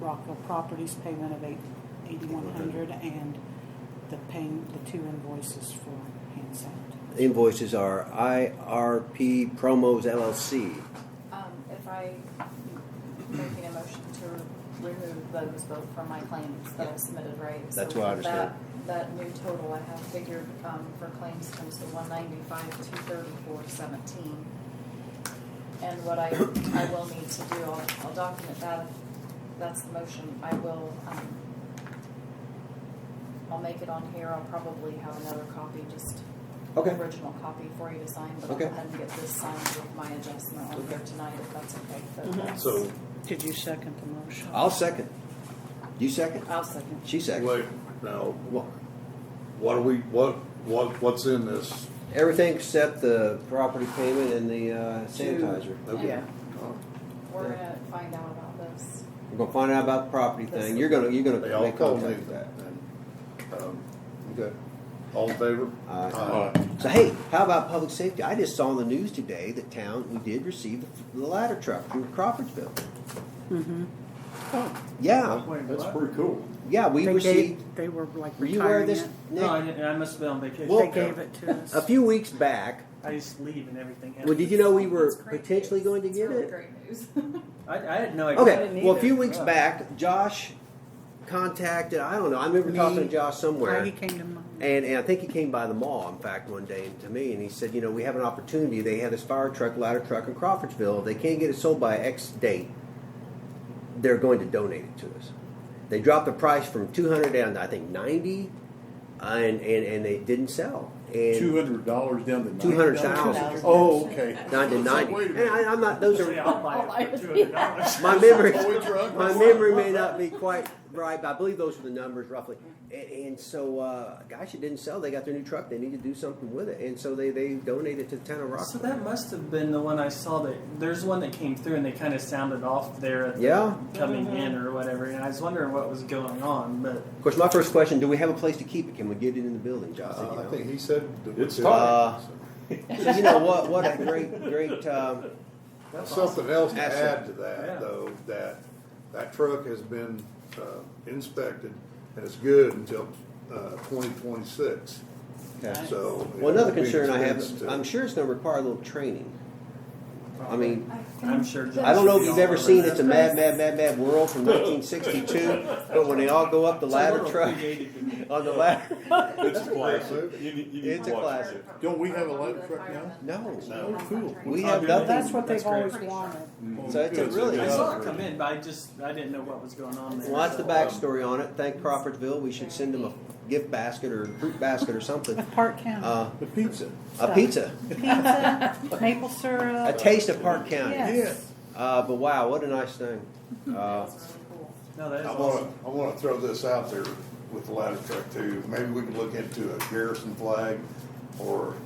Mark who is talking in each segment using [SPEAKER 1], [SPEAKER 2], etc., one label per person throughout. [SPEAKER 1] Rockville Properties payment of eight, eighty-one hundred and the paying, the two invoices for hand sand.
[SPEAKER 2] Invoices are IRP Promos LLC.
[SPEAKER 3] Um, if I making a motion to remove those both from my claims that I submitted, right? So
[SPEAKER 2] That's what I understood.
[SPEAKER 3] that- That new total I have figured, um, for claims comes to one ninety-five, two thirty-four, seventeen. And what I, I will need to do, I'll, I'll document that, that's the motion, I will, um, I'll make it on here, I'll probably have another copy, just
[SPEAKER 2] Okay.
[SPEAKER 3] original copy for you to sign, but I'll
[SPEAKER 2] Okay.
[SPEAKER 3] go ahead and get this signed with my adjustment on here
[SPEAKER 2] Okay.
[SPEAKER 3] tonight, if that's okay.
[SPEAKER 1] Mhm.
[SPEAKER 3] but that's-
[SPEAKER 4] So,
[SPEAKER 1] Did you second the motion?
[SPEAKER 2] I'll second. You second?
[SPEAKER 3] I'll second.
[SPEAKER 2] She second.
[SPEAKER 4] wait, now, what, what are we, what, what, what's in this?
[SPEAKER 2] Everything except the property payment and the uh, sanitizer.
[SPEAKER 4] Okay.
[SPEAKER 3] Yeah. We're gonna find out about this.
[SPEAKER 2] We're gonna find out about the property thing. You're gonna, you're
[SPEAKER 4] They
[SPEAKER 2] gonna
[SPEAKER 4] all
[SPEAKER 2] make
[SPEAKER 4] told me
[SPEAKER 2] contact with
[SPEAKER 4] that.
[SPEAKER 2] that.
[SPEAKER 4] Um, Okay, all in favor?
[SPEAKER 2] Aye.
[SPEAKER 4] Aye.
[SPEAKER 2] So hey, how about public safety? I just saw on the news today that town, we did receive the ladder truck from Crawfordsville.
[SPEAKER 1] Mm-hmm.
[SPEAKER 2] Yeah,
[SPEAKER 5] That's
[SPEAKER 4] what?
[SPEAKER 5] pretty cool.
[SPEAKER 2] yeah, we
[SPEAKER 1] They
[SPEAKER 2] received,
[SPEAKER 1] gave, they were like
[SPEAKER 2] were you aware of
[SPEAKER 1] retiring
[SPEAKER 2] this?
[SPEAKER 1] it.
[SPEAKER 2] Nick?
[SPEAKER 6] No, Oh, I, didn't, I must have been on vacation.
[SPEAKER 2] Well-
[SPEAKER 1] They gave it to us.
[SPEAKER 2] A few weeks back,
[SPEAKER 6] I just leave and everything happens.
[SPEAKER 2] well, did you know we were
[SPEAKER 3] It's great
[SPEAKER 2] potentially
[SPEAKER 3] news.
[SPEAKER 2] going to
[SPEAKER 3] It's
[SPEAKER 2] get
[SPEAKER 3] really
[SPEAKER 2] it?
[SPEAKER 3] Great news.
[SPEAKER 6] I, I had no idea. I
[SPEAKER 2] Okay,
[SPEAKER 6] didn't
[SPEAKER 2] well, a
[SPEAKER 6] either.
[SPEAKER 2] few weeks
[SPEAKER 6] Yeah.
[SPEAKER 2] back, Josh contacted, I don't know, I remember
[SPEAKER 1] Me.
[SPEAKER 2] talking to Josh somewhere.
[SPEAKER 1] Heidi came to mind.
[SPEAKER 2] And, and I think he came by the mall, in fact, one day to me, and he said, you know, we have an opportunity. They have this fire truck, ladder truck in Crawfordsville. If they can't get it sold by X date, they're going to donate it to us. They dropped the price from 200 down to, I think, 90, uh, and, and, and they didn't sell. And
[SPEAKER 5] Two hundred dollars down to ninety.
[SPEAKER 2] $200,000.
[SPEAKER 5] Oh, okay.
[SPEAKER 2] Down to
[SPEAKER 5] So
[SPEAKER 2] 90.
[SPEAKER 5] wait a
[SPEAKER 2] And I,
[SPEAKER 5] minute.
[SPEAKER 2] I'm not, those
[SPEAKER 6] Yeah,
[SPEAKER 2] are,
[SPEAKER 6] I'll buy it for two hundred dollars.
[SPEAKER 2] my memory.
[SPEAKER 5] Toy truck? Uh,
[SPEAKER 2] My memory may not be quite right, but I believe those were the numbers roughly. And, and so, uh, gosh, it didn't sell. They got their new truck. They need to do something with it, and so they they donated to the town of
[SPEAKER 6] So
[SPEAKER 2] Rockford.
[SPEAKER 6] that must have been the one I saw. That there's one that came through and they kind of sounded off there at the
[SPEAKER 2] Yeah.
[SPEAKER 6] coming in or whatever. And I was wondering what was going on, but
[SPEAKER 2] Of course, my first question: Do we have a place to keep it? Can we get it in the building, Josh? said,
[SPEAKER 4] Uh, I
[SPEAKER 2] you,
[SPEAKER 4] think he said. that we
[SPEAKER 5] It's
[SPEAKER 4] did.
[SPEAKER 2] time. know. you know what? What a great, great. Um,
[SPEAKER 6] that's awesome.
[SPEAKER 4] Something else to
[SPEAKER 2] Asset.
[SPEAKER 4] add to
[SPEAKER 6] Yeah.
[SPEAKER 4] that, though, that, that truck has been uh, inspected, and it's good until uh, twenty twenty-six, so.
[SPEAKER 2] well, another
[SPEAKER 4] it would be
[SPEAKER 2] concern I
[SPEAKER 4] expense
[SPEAKER 2] have:
[SPEAKER 4] to-
[SPEAKER 2] I'm sure it's going to require a little training. I mean,
[SPEAKER 6] I'm sure.
[SPEAKER 2] I don't know if
[SPEAKER 6] Josh
[SPEAKER 2] you've
[SPEAKER 6] would be
[SPEAKER 2] ever
[SPEAKER 6] all
[SPEAKER 2] seen
[SPEAKER 6] over
[SPEAKER 2] "It's a
[SPEAKER 6] that.
[SPEAKER 2] Mad, Mad, Mad, Mad World" from 1962, but when they all go up the
[SPEAKER 6] It's a
[SPEAKER 2] ladder
[SPEAKER 6] little
[SPEAKER 2] truck
[SPEAKER 6] creative to me.
[SPEAKER 2] on the ladder.
[SPEAKER 7] It's a classic.
[SPEAKER 4] movie.
[SPEAKER 7] You need, you need
[SPEAKER 2] It's
[SPEAKER 7] to
[SPEAKER 2] a
[SPEAKER 7] watch
[SPEAKER 2] classic.
[SPEAKER 5] Don't we have a ladder truck
[SPEAKER 2] now?
[SPEAKER 4] No.
[SPEAKER 2] We
[SPEAKER 5] Oh,
[SPEAKER 2] have
[SPEAKER 5] dude,
[SPEAKER 2] nothing.
[SPEAKER 1] That's what
[SPEAKER 6] That's
[SPEAKER 1] they've always
[SPEAKER 3] great.
[SPEAKER 1] wanted.
[SPEAKER 5] Oh,
[SPEAKER 2] So it's a
[SPEAKER 5] good.
[SPEAKER 2] really-
[SPEAKER 6] I
[SPEAKER 2] Yeah.
[SPEAKER 6] saw it come in, but I just I didn't know what was going on there.
[SPEAKER 2] Well, that's the
[SPEAKER 6] So-
[SPEAKER 2] backstory on it. Thank Crawfordsville. We should send them a gift basket or fruit basket or something.
[SPEAKER 1] Of Park County.
[SPEAKER 2] Uh,
[SPEAKER 5] The pizza.
[SPEAKER 2] a pizza,
[SPEAKER 1] Pizza, maple
[SPEAKER 2] a
[SPEAKER 1] syrup.
[SPEAKER 2] taste of Park County.
[SPEAKER 1] Uh, Yes.
[SPEAKER 2] Uh, but wow, what a nice thing. Uh,
[SPEAKER 3] That's really cool.
[SPEAKER 6] No, that is
[SPEAKER 4] I
[SPEAKER 6] awesome.
[SPEAKER 4] wanna, I wanna throw this out there with the ladder truck too. Maybe we can look into a garrison flag or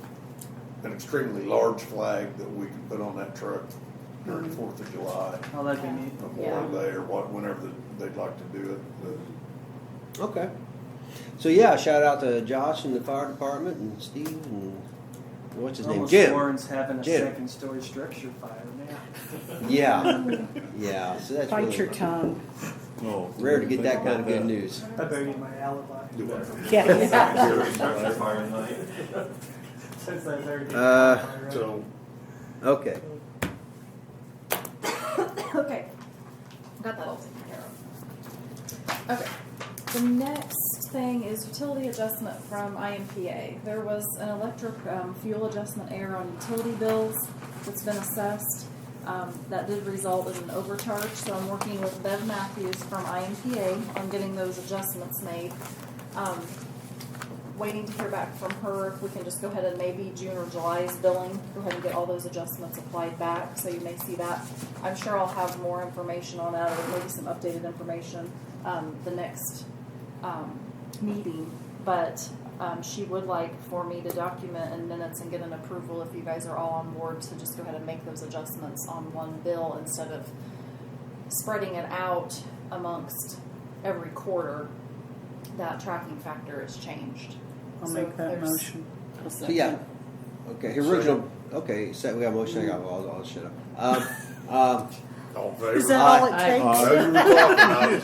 [SPEAKER 4] an extremely large flag that we can put on that truck during
[SPEAKER 2] Mm-hmm.
[SPEAKER 4] Fourth of July,
[SPEAKER 6] Oh, that'd be neat.
[SPEAKER 4] Memorial
[SPEAKER 3] Yeah.
[SPEAKER 4] Day or what, whenever the- they'd like to do it. but-
[SPEAKER 2] okay. So yeah, shout out to Josh and the fire department and Steve and what's his name,
[SPEAKER 6] Almost
[SPEAKER 2] Jim.
[SPEAKER 6] Warren's having a
[SPEAKER 2] Jim.
[SPEAKER 6] second story structure fire now.
[SPEAKER 2] Yeah, yeah. So that's
[SPEAKER 1] Bite your
[SPEAKER 2] really
[SPEAKER 1] tongue.
[SPEAKER 5] No.
[SPEAKER 2] rare to get that kind of good news.
[SPEAKER 6] I buried my alibi.
[SPEAKER 1] Yes.
[SPEAKER 7] Structure fire night.
[SPEAKER 6] Since I buried it.
[SPEAKER 2] Uh,
[SPEAKER 4] So,
[SPEAKER 2] Okay.
[SPEAKER 3] Okay, got that all taken care of. Okay, the next thing is utility adjustment from IMPA. There was an electric um, fuel adjustment error on utility bills that's been assessed. Um, That did result in an overcharge, so I'm working with Bev Matthews from IMPA on getting those adjustments made. Um, Waiting to hear back from her, if we can just go ahead and maybe June or July's billing, go ahead and get all those adjustments applied back, so you may see that. I'm sure I'll have more information on that, or maybe some updated information, um, the next, um, meeting. But, um, she would like for me to document in minutes and get an approval if you guys are all on board to just go ahead and make those adjustments on one bill instead of spreading it out amongst every quarter. That tracking factor is changed.
[SPEAKER 1] I'll
[SPEAKER 3] So
[SPEAKER 1] make that
[SPEAKER 3] there's-
[SPEAKER 1] motion.
[SPEAKER 2] So yeah. Okay. Original. Okay. So we got a motion. I got all, all shut up. Um, um,
[SPEAKER 4] all in
[SPEAKER 1] Is
[SPEAKER 4] favor?
[SPEAKER 1] that all
[SPEAKER 2] Aye.
[SPEAKER 1] it takes?
[SPEAKER 2] Uh,
[SPEAKER 4] No, you were talking, I was